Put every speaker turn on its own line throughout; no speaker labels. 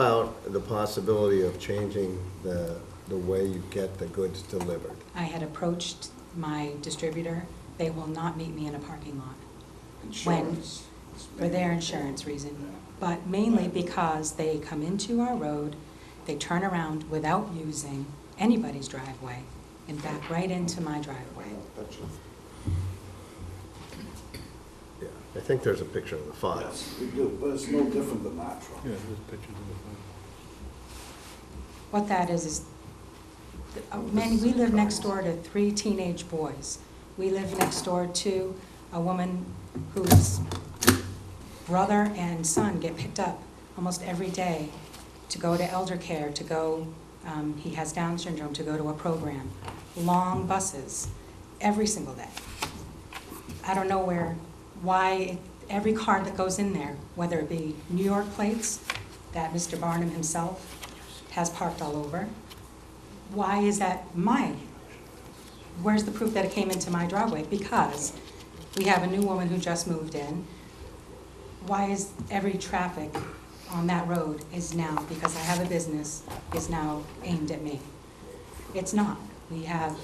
About the possibility of changing the, the way you get the goods delivered.
I had approached my distributor. They will not meet me in a parking lot
Insurance.
for their insurance reason, but mainly because they come into our road, they turn around without using anybody's driveway and back right into my driveway.
That's your-
Yeah, I think there's a picture in the file.
Yes, we do, but it's no different than that truck.
Yeah, there's pictures in the file.
What that is, is, uh, Manny, we live next door to three teenage boys. We live next door to a woman whose brother and son get picked up almost every day to go to elder care, to go, um, he has Down syndrome, to go to a program. Long buses, every single day. I don't know where, why every car that goes in there, whether it be New York plates that Mr. Barnum himself has parked all over, why is that my, where's the proof that it came into my driveway? Because we have a new woman who just moved in. Why is every traffic on that road is now, because I have a business, is now aimed at me? It's not. We have,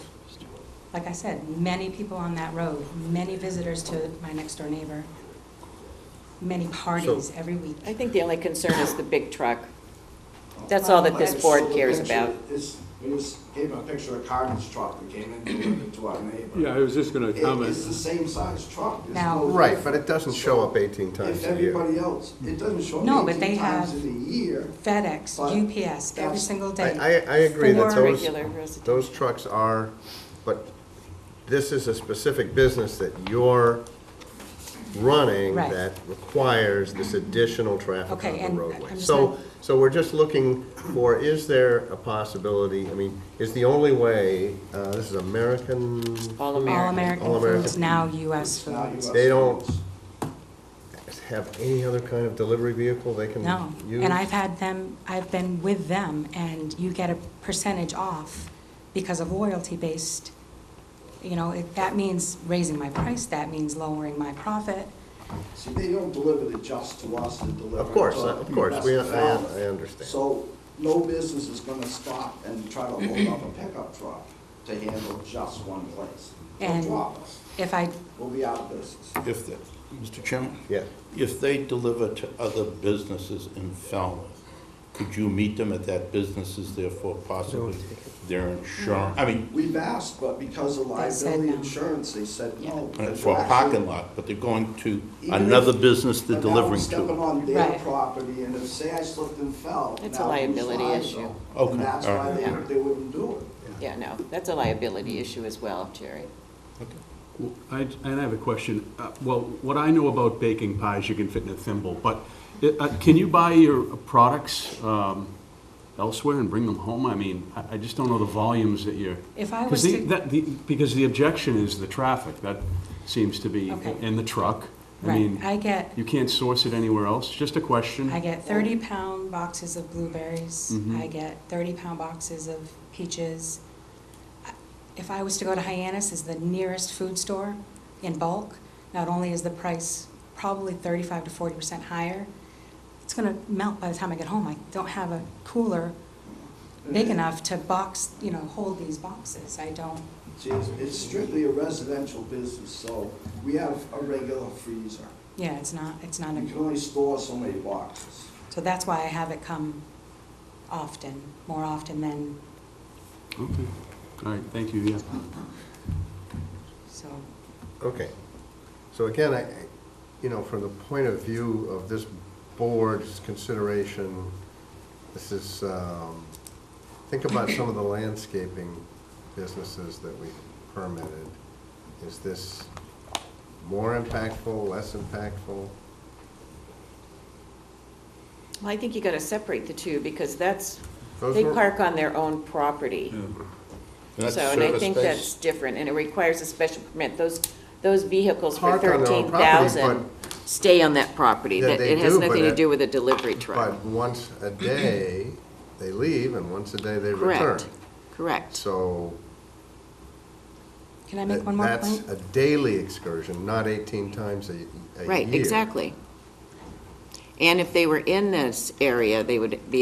like I said, many people on that road, many visitors to my next door neighbor, many parties every week.
I think the only concern is the big truck. That's all that this board
So the
cares
picture
about.
is- we just gave a picture of Carmen's truck that came in delivered to our neighbor.
Yeah, I was just gonna
It- It's the
comment,
same size truck. There's
Now-
no-
Right, but it doesn't show up 18 times
If
a year.
everybody else, it doesn't show
No,
up
but they
eighteen times
have-
in a year.
FedEx,
But
UPS, every
that's-
single
I,
day.
I, I agree that
For
those,
regular residents.
those trucks are, but this is a specific business that you're running
Right.
that requires this additional traffic
Okay,
on the
and
roadway.
I'm just
So,
not-
so we're just looking for, is there a possibility, I mean, is the only way, uh, this is American,
All
All
American.
American
All
Foods,
American.
now US
It's now
Foods.
US
They don't-
Foods.
have any other kind of delivery vehicle they
Mm.
can
No,
use?
and I've had them, I've been with them, and you get a percentage off because of royalty-based, you know, it- that means raising my price, that means lowering my profit.
See, they don't deliver it just to us, they deliver it to.
Of course, uh, of course, we, I,
the rest of the
I
town.
understand.
So no business is gonna stop and try to hold up a pickup truck to handle just one place. They'll
And-
drop us.
If I,
We'll be out of business.
If, the- Mr. Chairman?
Yeah.
If they deliver to other businesses in Falmouth, could you meet them at that businesses, therefore possibly their insurance? I mean,
We've asked, but because of
They said
liability
no.
insurance, they said no.
for a parking lot, but they're going to another business they're
But now I'm
delivering
stepping
to.
on their
Right.
property, and if, say I slipped and fell.
It's
now
a
who's
liability
liable?
issue.
Okay,
And that's
all
why
right.
they,
Yeah.
they wouldn't do it.
Yeah, no, that's a liability issue as well, Jerry.
Well, I, and I have a question. Uh, Well, what I know about baking pies, you can fit in a thimble, but uh, can you buy your products um, elsewhere and bring them home? I mean, I I just don't know the volumes that you're.
if I was
Because the,
to,
that, the, because the objection is the traffic, that seems to be,
Okay.
and the truck. I
right,
mean,
I get,
you can't source it anywhere else, just a question.
I
Mm-hmm.
get thirty-pound boxes of blueberries,
Mhm.
I get thirty-pound boxes of peaches. I- If I was to go to Hyannis, is the nearest food store in bulk, not only is the price probably thirty-five to forty percent higher, it's gonna melt by the time I get home, I don't have a cooler big
Mm-hmm.
enough to box, you know, hold these boxes, I don't,
See, it's- it's strictly a residential business, so we have a regular freezer.
yeah, it's not, it's not,
You can
a
only store so many boxes.
so that's why I have it come often, more often than,
Okay, all right, thank you, yeah.
so,
Okay. So again, I, I- you know, from the point of view of this board's consideration, this is, um, think about some of the landscaping businesses that we permitted. Is this more impactful, less impactful?
Well, I think you gotta separate the two, because that's,
Those
they
were-
park on their own property.
That's
So, and I
service
think
space.
that's different, and it requires a special permit. Those, those vehicles for
Park on their
thirteen
own property,
thousand stay on that property.
Yeah,
That,
they
it has
do, but
nothing to
it-
do with a delivery truck.
But once a day, they leave, and once a day, they return.
Correct, correct.
So
can I make
that-
one more
that's
point?
a daily excursion, not 18 times a a year.
Right, exactly. And if they were in this area, they would be